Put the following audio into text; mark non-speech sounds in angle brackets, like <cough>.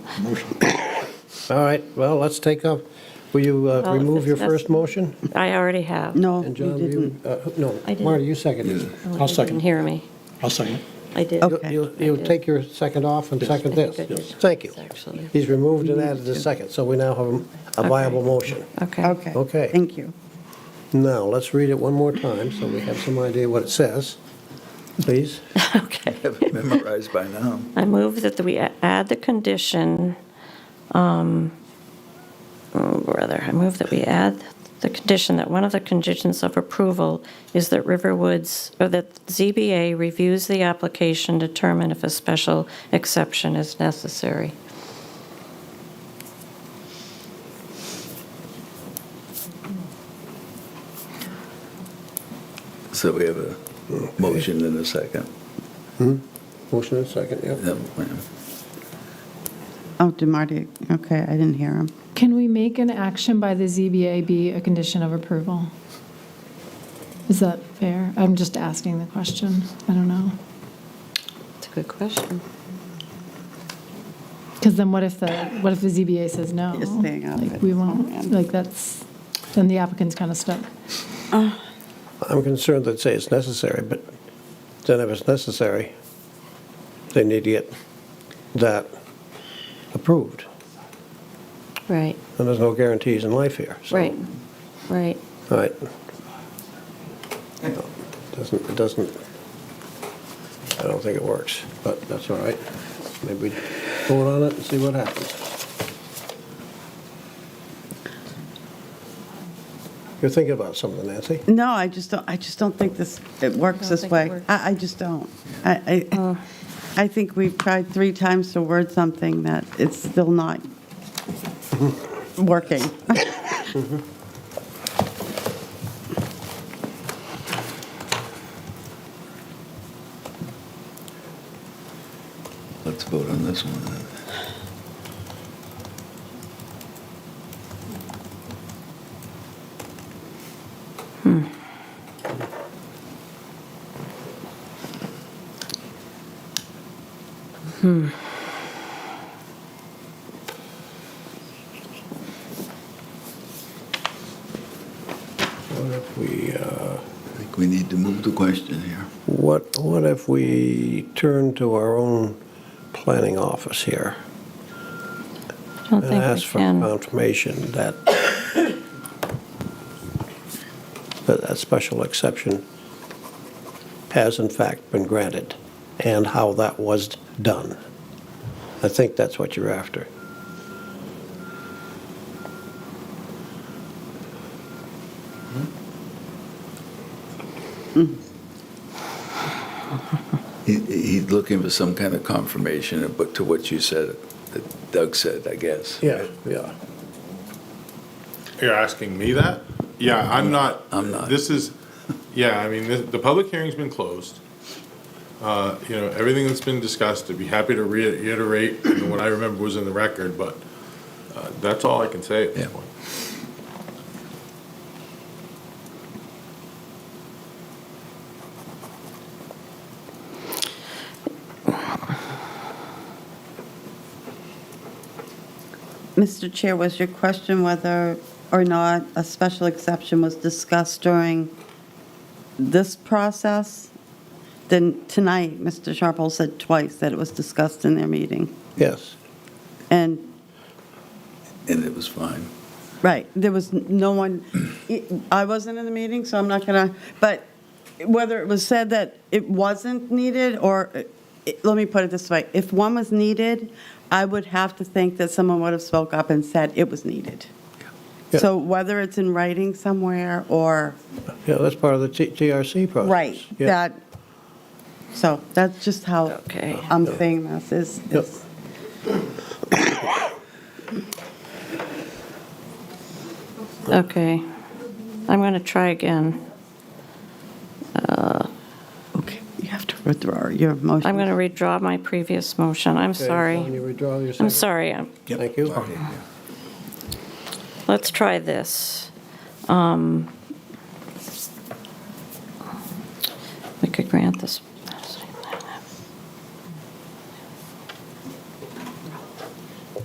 Motion. All right, well, let's take up, will you uh, Well, if remove it's your first necess- motion? I already have. No, you And John, didn't. you, uh, no, I didn't. Marty, you seconded. Yeah. Oh, I'll you second. didn't hear me. I'll second. I did. Okay. You, you I take your second off and second I this. think I did. Thank you. Actually. He's removed and added the second, so we now have a- a Okay. viable motion. Okay. Okay. Okay. Thank you. Now, let's read it one more time so we have some idea what it says. Please, <laughs> Okay. Have it memorized by now. I move that we a- add the condition, um, oh, brother, I move that we add the condition that one of the conditions of approval is that Riverwoods, or that ZBA reviews the application, determine if a special exception is necessary. So we have a motion and a second. motion and second, yeah. Yeah, ma'am. Oh, did Marty, okay, I didn't hear him. Can we make an action by the ZBA be a condition of approval? Is that fair? I'm just asking the question. I don't know. It's a good question. Because then what if the, what if the ZBA says no? You're staying out of Like, it. We Oh, won't, man. like, that's, then the applicant's kind of stuck. I'm concerned that say it's necessary, but then if it's necessary, they need to get that approved. Right, And there's no guarantees in life here, so. right, right. All right. Doesn't, it doesn't, I don't think it works, but that's all right. Maybe we vote on it and see what happens. You're thinking about something, Nancy? No, I just don't, I just don't think this, it works Don't this think it way. works. I, I just don't. I, I, I think we've tried three times to word something that it's still not working. <laughs> Let's vote on this one. then. What if we, uh, I think we need to move the question here. what, what if we turn to our own planning office here? I And don't think we ask for can. confirmation that, that that special exception has in fact been granted, and how that was done. I think that's what you're after. He, he's looking for some kind of confirmation of what- to what you said, that Doug said, I guess. yeah. You're asking me that? Yeah, I'm not. I'm not. This is, yeah, I mean, the, the public hearing's been closed. Uh, You know, everything that's been discussed, I'd be happy to reiterate what I remember was in the record, but uh, that's all I can say at this Yeah. point. Mr. Chair, was your question whether or not a special exception was discussed during this process? Then tonight, Mr. Sharples said twice that it was discussed in their meeting. Yes, And And it was fine. Right, there was n- no one, e, I wasn't in the meeting, so I'm not going to, but whether it was said that it wasn't needed, or, it- let me put it this way, if one was needed, I would have to think that someone would have spoke up and said it was needed. Yeah. So whether it's in writing somewhere, or, yeah, that's part of the T- TRC process. right, Yeah. that, so that's just how Okay. I'm saying this, is, Yep. is- Okay. I'm going to try again. okay, you have to withdraw your motion. I'm going to redraw my previous motion. I'm Okay, Dawn, you sorry. withdraw your second? I'm sorry. I'm- Yep. Thank you. Marty, yeah. Let's try this. Um, We could grant this